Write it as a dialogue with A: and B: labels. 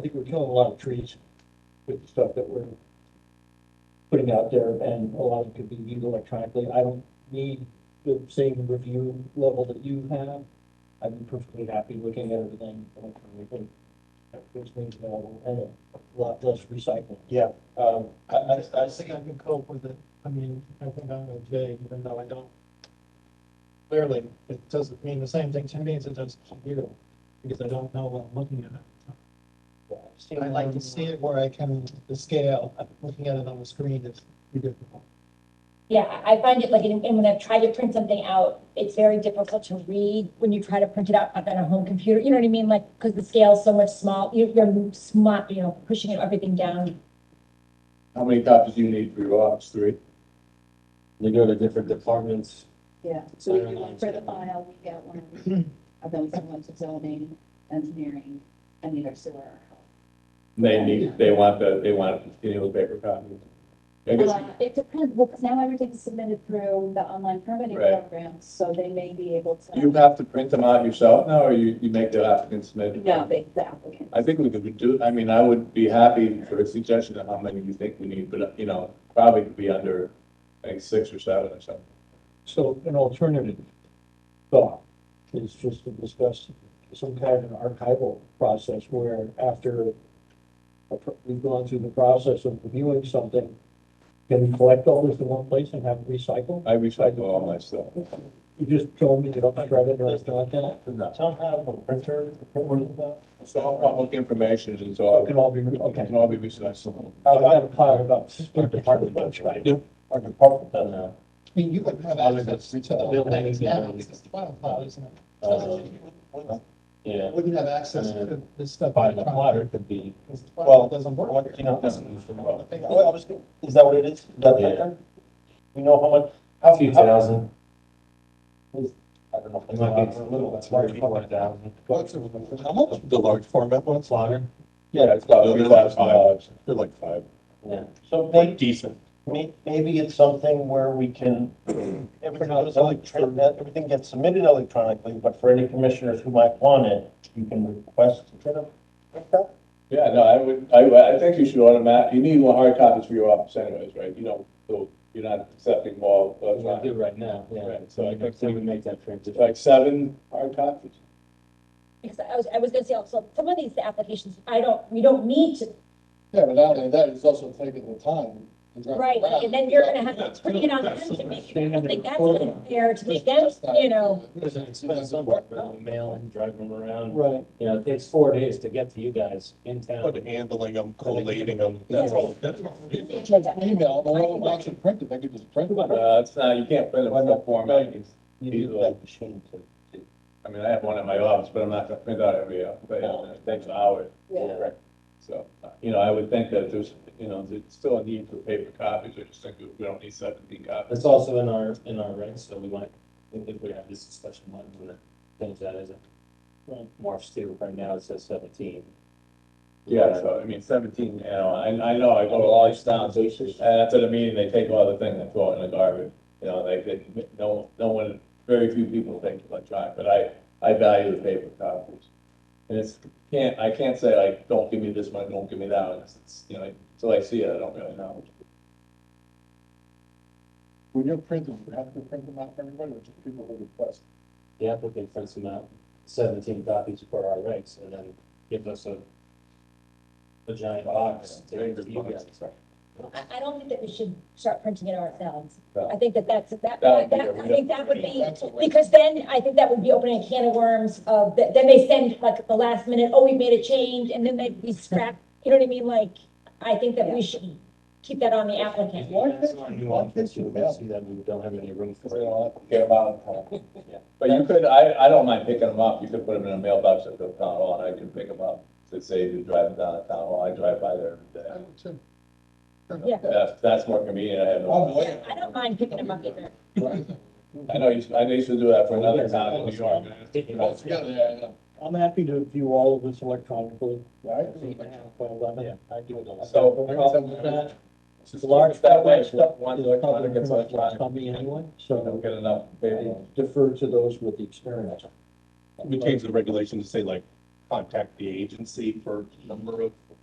A: I think we're killing a lot of trees with the stuff that we're putting out there, and a lot of it could be viewed electronically. I don't need the same review level that you have. I'd be perfectly happy looking at everything electronically. Which means available and a lot less recycling.
B: Yeah.
A: Um,
B: I, I, I think I can cope with it. I mean, I think I'm okay, even though I don't. Clearly, it doesn't mean the same thing to me as it does to you, because I don't know what I'm looking at. I like to see it where I can, the scale, looking at it on the screen is pretty difficult.
C: Yeah, I I find it like, and and when I've tried to print something out, it's very difficult to read when you try to print it out on a home computer, you know what I mean? Like, because the scale's so much small, you're, you're smart, you know, pushing everything down.
D: How many copies do you need for your office? Three?
E: They go to different departments.
F: Yeah, so we do one for the file, we get one, I've done someone to zoning, engineering, and either sewer or health.
D: They need, they want the, they want a continual paper copy. I guess,
F: Well, It depends, well, because now everything's submitted through the online permitting
D: Right.
F: program, so they may be able to.
D: you have to print them out yourself now, or you, you make the applicant submit?
F: No, they, the applicant.
D: I think we could do, I mean, I would be happy for a suggestion of how many you think we need, but, you know, probably could be under, like, six or seven or something.
A: So an alternative thought is just to discuss some kind of an archival process where after a pr- we've gone through the process of reviewing something, can we collect all this in one place and have it recycled?
D: I recycle all my stuff.
A: You just told me you don't shred it or anything like that.
D: No.
B: Don't have a printer, a printer about.
D: It's all public information, it's
A: It
E: Oh.
D: all,
A: can all be,
D: it
A: okay.
D: can all be recycled.
A: I've got a pile of about six
B: Our department does, right?
D: Our department does now.
B: I mean, you could have
E: Other
B: access to
E: than-
B: the building, yeah, it's just file file, isn't it?
E: Uh, Yeah.
B: Wouldn't have access to this stuff.
E: By the plotter could be.
B: Because the
G: Well,
B: file doesn't
G: Well,
B: work.
G: you know, that's-
E: Well,
G: Well, I was gonna- Oh, Is that what it is? Is that what it is? We know how much, how
E: Two
G: few, I
E: thousand.
G: don't know. if
E: It
G: it's
E: might be
G: a
E: a
G: lot
E: little,
G: or
E: it's
G: it's large.
E: large, one thousand.
B: How much?
G: The large format ones?
E: Slaughter.
D: Yeah, it's about three thousand dollars. They're like five.
E: Yeah.
G: So maybe,
E: Decent.
G: maybe it's something where we can, everything goes electronic, that everything gets submitted electronically, but for any commissioners who might want it, you can request to print them.
D: Yeah, no, I would, I, I think you should automatic, you need more hard copies for your office anyways, right? You don't, so you're not accepting more.
E: We do right now, yeah.
D: Right, so I think
E: we would make that
D: It's
E: transition.
D: like seven hard copies.
C: Because I was, I was gonna say also, some of these applications, I don't, we don't need to,
B: Yeah, but not only that, it's also taking the time. and driving
C: right,
B: around.
C: and then you're gonna have to bring it on them to make, I don't think that's unfair to make them, you know.
E: There's an expense somewhere, uh, mail and drive them around.
A: Right.
E: You know, it takes four days to get to you guys in town.
G: handling them,
E: collating
G: them,
C: that's all-
G: that's all.
B: If it's an Email, the one that's actually printed, they could just print it.
D: No, Uh, it's not, you can't print it in that format. It's-
G: You use
E: uh,
G: that machine to.
D: I mean, I have one in my office, but I'm not gonna print out every, uh, but uh, it takes hours.
F: Yeah.
D: Right. So, uh, you know, I would think that there's, you know, there's still a need for paper copies. I just think that we don't need seventeen copies.
E: It's also in our, in our rights, so we might, if if we have this discussion, might want to change that as a morphs to, right now it says seventeen.
D: Yeah, so, I mean, seventeen, you know, I, I know, I go to all these towns, and after the meeting, they take all the things and throw it in the garbage. You know, they, they, no, no one, very few people think electronic, but I, I value the paper copies. And it's, can't, I can't say like, don't give me this one, don't give me that one, it's- it's, you know, until I see it, I don't really know.
B: When you're printing, you have to print them out for everybody, which is people who request.
E: The applicant prints them out, seventeen copies for our rights, and then gives us a a giant box to give to you guys.
C: I, I don't think that we should start printing it ourselves.
D: No.
C: I think that that's, that,
D: That would
C: that,
D: be
C: I
D: a-
C: think that would be,
B: That's what we-
C: because then I think that would be opening a can of worms of, that- then they send like at the last minute, oh, we made a change, and then they, we scrap, you know what I mean? Like, I think that we should keep that on the
E: If
C: applicant.
E: you guys aren't nuanced, you will see that we don't have any room
D: Because they
E: for it.
D: don't have to care about it. But you could, I, I don't mind picking them up, you could put them in a mailbox at the town hall, and I can pick them up. To save you driving down the town hall, I drive by there every day.
C: Yeah.
D: That's, that's more convenient, I have no.
B: Oh,
C: Yeah, I don't mind picking them up either.
D: I know, you- I know you used to do that for another town in New York.
A: I'm happy to view all of this electronically.
B: Right.
A: Yeah. I do it all.
D: So-
A: No problem with that.
D: It's large that way, but one
A: One
D: electronic
A: electronic
D: gets electronic,
A: on me anyway,
D: you don't
A: so
D: get enough
A: I
D: paper.
A: defer to those with the experience.
G: the regulation to say like
H: contact the agency for number of